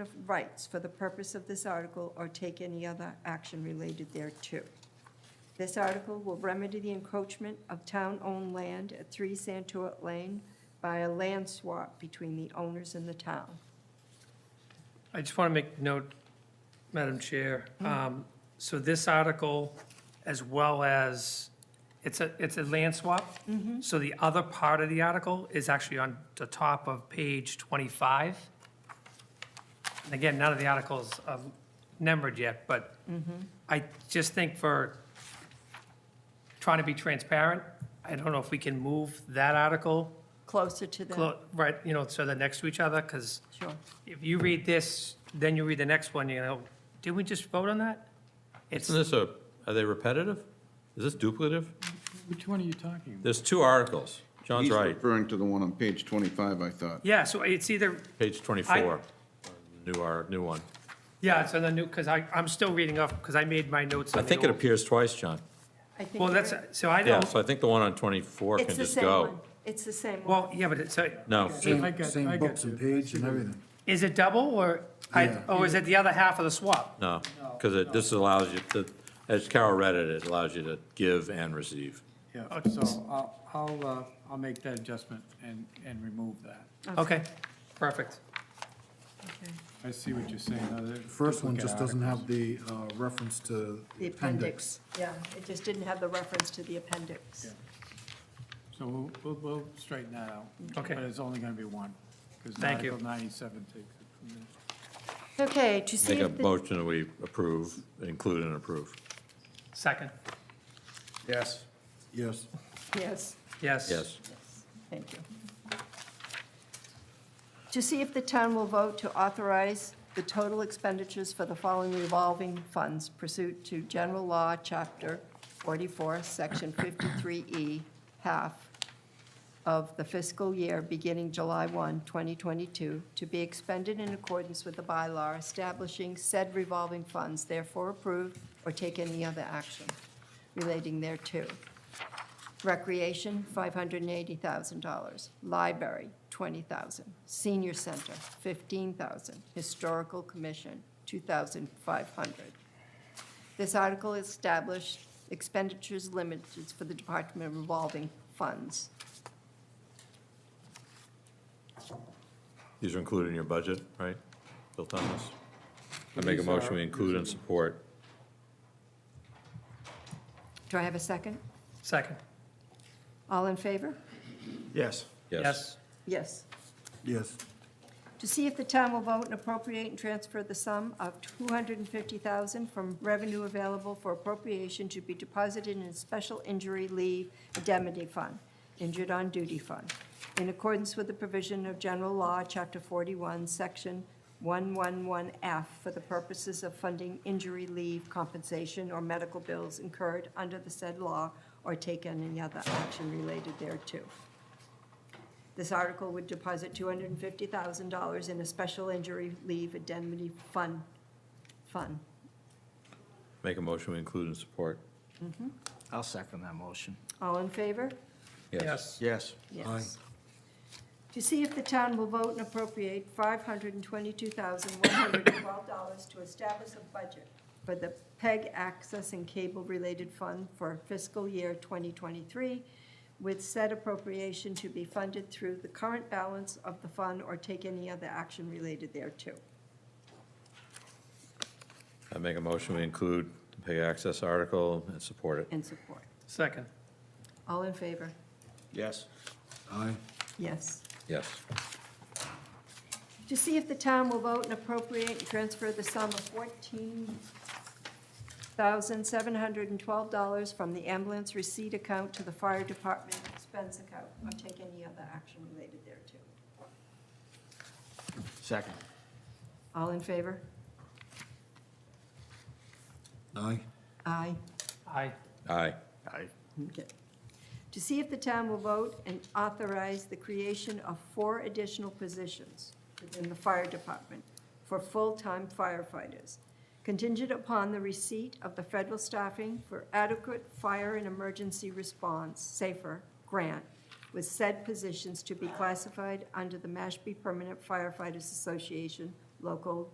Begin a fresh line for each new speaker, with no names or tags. of rights for the purpose of this article or take any other action related thereto. This article will remedy the encroachment of town-owned land at 3 Santuit Lane by a land swap between the owners and the town.
I just want to make note, Madam Chair, um, so this article, as well as, it's a, it's a land swap? So the other part of the article is actually on the top of page 25. And again, none of the articles are numbered yet, but I just think for trying to be transparent, I don't know if we can move that article,
Closer to the,
clo- right, you know, so they're next to each other, because
sure.
if you read this, then you read the next one, you know, did we just vote on that? It's,
Isn't this a, are they repetitive? Is this duplicative?
Which one are you talking about?
There's two articles. John's
He's
right,
referring to the one on page 25, I thought.
yeah, so it's either,
page 24, new our, new one.
yeah, it's on the new, because I, I'm still reading off, because I made my notes
I
on the
think it
old.
appears twice, John.
I think
Well,
you're
that's,
right.
so I
Yeah,
don't,
so I think the one on 24
It's
can
the
just
same one.
go.
It's the same one.
well, yeah, but it's, so,
No,
I
Same,
got- I
same
got
books and
you. I
page
see
and
what you-
everything.
is it double, or, I,
Yeah.
or is it the other half of the swap?
no, because it, this allows you to, as Carol read it, it allows you to give and receive.
Yeah, so I'll, I'll, uh, I'll make that adjustment and, and remove that.
Okay, perfect.
Okay.
I see what you're saying. though. They're
First one
duplicate
just doesn't have
articles.
the uh, reference to
The appendix, yeah, it just didn't have the reference to the appendix.
So we'll, we'll, we'll straighten that out.
Okay.
But it's only gonna be one, because
Thank you.
Article ninety-seven takes it from there.
Okay, to see
Make a
if, the-
motion that we approve, include and approve.
Second,
Yes.
Yes,
yes.
yes.
Yes.
Thank you. To see if the town will vote to authorize the total expenditures for the following revolving funds pursuant to General Law, Chapter 44, Section 53E, half of the fiscal year beginning July 1, 2022, to be expended in accordance with the bylaw establishing said revolving funds, therefore approve or take any other action relating thereto. Recreation, $580,000. Library, $20,000. Senior Center, $15,000. Historical Commission, $2,500. This article established expenditures limited for the Department of Revolving Funds.
These are included in your budget, right, Bill Thomas? I
But
make a
these are-
motion we include and support.
Do I have a second?
Second,
All in favor?
yes,
yes.
Yes.
yes,
To see if the town will vote and appropriate and transfer the sum of $250,000 from revenue available for appropriation to be deposited in a special injury leave indemnity fund, injured on duty fund, in accordance with the provision of General Law, Chapter 41, Section 111F, for the purposes of funding injury leave compensation or medical bills incurred under the said law or take any other action related thereto. This article would deposit $250,000 in a special injury leave indemnity fund, fund.
Make a motion we include and support.
I'll second that motion.
All in favor?
Yes,
Yes.
Yes. To see if the town will vote and appropriate $522,112 to establish a budget for the PEG Access and Cable-related Fund for fiscal year 2023, with said appropriation to be funded through the current balance of the fund or take any other action related thereto.
I make a motion we include the pay access article and support it.
And support.
second,
All in favor?
Yes.
aye,
Yes.
Yes.
To see if the town will vote and appropriate and transfer the sum of fourteen thousand seven hundred and twelve dollars from the ambulance receipt account to the fire department expense account, or take any other action related thereto.
Second.
All in favor?
aye,
Aye.
aye,
Aye.
Aye.
Okay. To see if the town will vote and authorize the creation of four additional positions within the fire department for full-time firefighters, contingent upon the receipt of the federal staffing for adequate fire and emergency response, SAFER, grant, with said positions to be classified under the Mashpee Permanent Firefighters Association Local